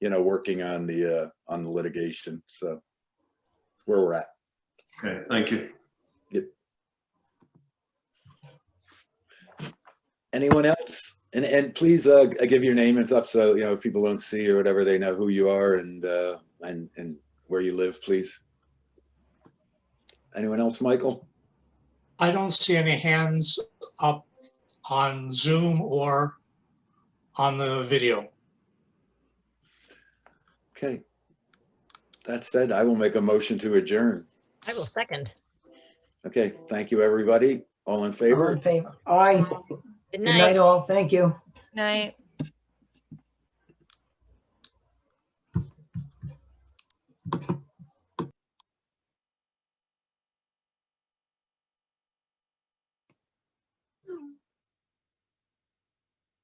you know, working on the, uh, on the litigation, so. That's where we're at. Okay, thank you. Anyone else? And, and please, uh, g- give your name and stuff, so, you know, if people don't see or whatever, they know who you are and, uh, and, and where you live, please. Anyone else, Michael? I don't see any hands up on Zoom or on the video. Okay. That said, I will make a motion to adjourn. I will second. Okay, thank you, everybody. All in All favor? in favor? Aye. Good Good night, night. all. Thank you. Night.